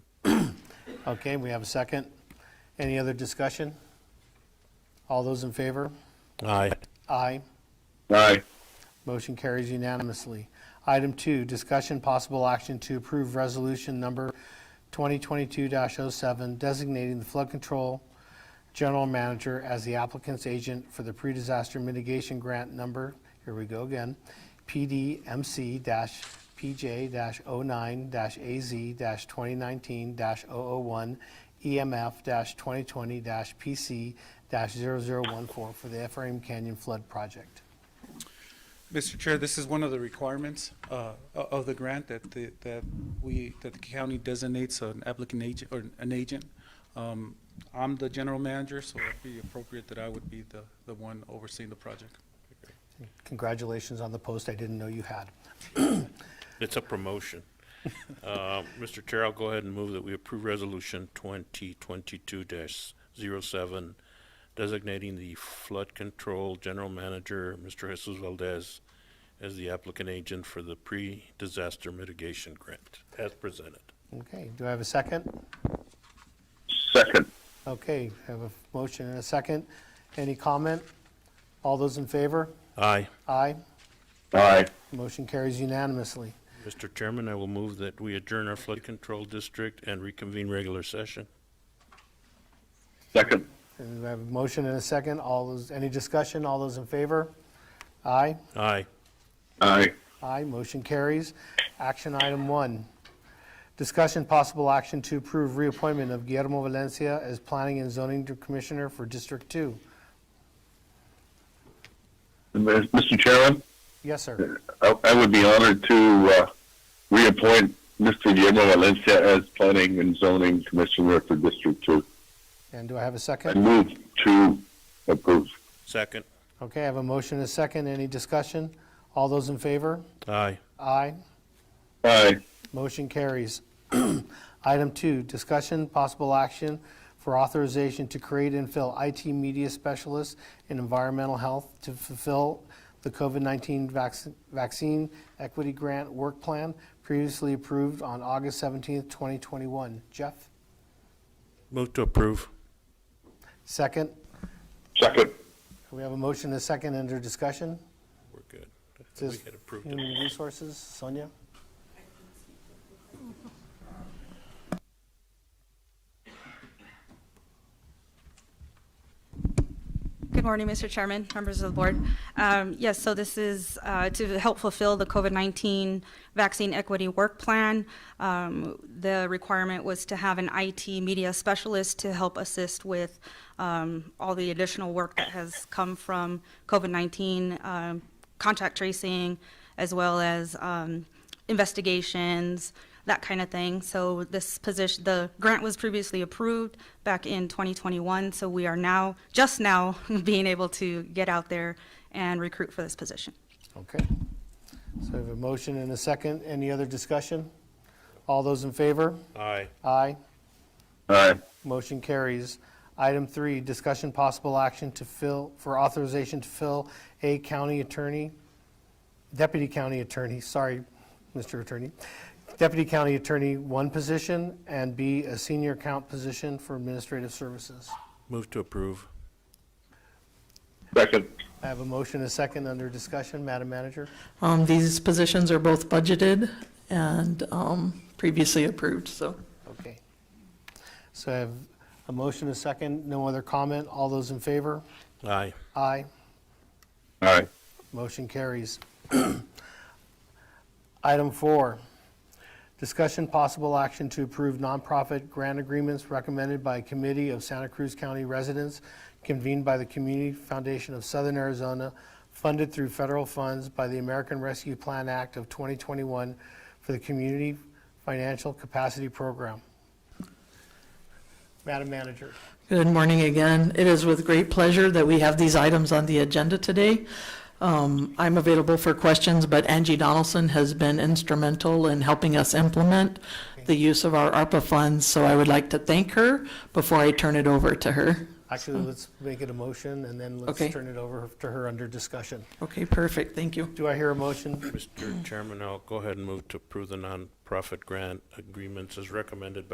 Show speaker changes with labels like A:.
A: Okay, we have a second. Any other discussion? All those in favor?
B: Aye.
A: Aye.
C: Aye.
A: Motion carries unanimously. Item two, discussion possible action to approve resolution number 2022-07 designating the flood control general manager as the applicant's agent for the pre-disaster mitigation grant number, here we go again, oh PDMC-PJ-09-AZ-2019-001 E EMF-2020-PC-0014 for the Ephraim Canyon Flood Project.
D: Mr. Chair, this is one of the requirements uh, o- of the grant that the, that we, that the county designates an applicant agent, or an agent. Um, I'm the general manager, so it'd be appropriate that I would be the, the one overseeing the project.
A: Congratulations on the post I didn't know you had.
B: It's a promotion. Uh, Mr. Chair, I'll go ahead and move that we approve Resolution 2022-07, designating the flood control general manager, Mr. Jesus Valdez, as the applicant agent for the pre-disaster mitigation grant, as presented.
A: Okay, do I have a second?
C: Second.
A: Okay, I have a motion and a second. Any comment? All those in favor?
B: Aye.
A: Aye.
C: Aye.
A: Motion carries unanimously.
B: Mr. Chairman, I will move that we adjourn our flood control district and reconvene regular session.
C: Second.
A: And we have a motion and a second. All those, any discussion? All those in favor? Aye.
B: Aye.
C: Aye.
A: Aye, motion carries. Action item one, discussion possible action to approve reappointment of Guillermo Valencia as Planning and Zoning Commissioner for District Two.
C: Mr. Chairman,
A: Yes, sir.
C: I I would be honored to uh, reappoint Mr. Guillermo Valencia as Planning and Zoning Commissioner for District Two.
A: And do I have a
C: I
A: second?
C: move to approve.
B: Second.
A: Okay, I have a motion and a second. Any discussion? All those in favor?
B: Aye.
A: Aye.
C: Aye.
A: Motion carries. Item two, discussion, possible action for authorization to create and fill IT media specialists in environmental health to fulfill the COVID-19 vac- vaccine equity grant work plan previously approved on August 17th, 2021. Jeff,
B: Move to approve.
A: second.
C: Second.
A: We have a motion and a second under discussion.
B: We're good. I think
A: Says
B: We had approved it.
A: Human Resources, Sonia?
E: Good morning, Mr. Chairman, members of the board. Um, Yes, so this is uh, to help fulfill the COVID-19 Vaccine Equity Work Plan. Um, The requirement was to have an IT media specialist to help assist with um, all the additional work that has come from COVID-19, um, contact tracing, as well as um, investigations, that kind of thing. So this position, the grant was previously approved back in 2021, so we are now, just now, being able to get out there and recruit for this position.
A: Okay. So we have a motion and a second. Any other discussion? All those in favor?
B: Aye.
A: Aye.
C: Aye.
A: Motion carries. Item three, discussion possible action to fill, for authorization to fill a county attorney, deputy county attorney, sorry, Mr. Attorney, deputy county attorney, one position, and B, a senior account position for administrative services.
B: Move to approve.
C: Second.
A: I have a motion, and a second, under discussion. Madam Manager?
F: Um, These positions are both budgeted and um, previously approved, so.
A: Okay. So I have a motion, and a second, no other comment. All those in favor?
B: Aye.
A: Aye.
C: Aye.
A: Motion carries. Item four, discussion possible action to approve nonprofit grant agreements recommended by a committee of Santa Cruz County residents convened by the Community Foundation of Southern Arizona, funded through federal funds by the American Rescue Plan Act of 2021 for the Community Financial Capacity Program. Madam Manager.
F: Good morning again. It is with great pleasure that we have these items on the agenda today. Um, I'm available for questions, but Angie Donaldson has been instrumental in helping us implement the use of our ARPA funds, so I would like to thank her before I turn it over to her.
A: Actually, let's make it a motion, and then let's
F: Okay.
A: turn it over to her under discussion.
F: Okay, perfect, thank you.
A: Do I hear a motion?
B: Mr. Chairman, I'll go ahead and move to approve the nonprofit grant agreements as recommended by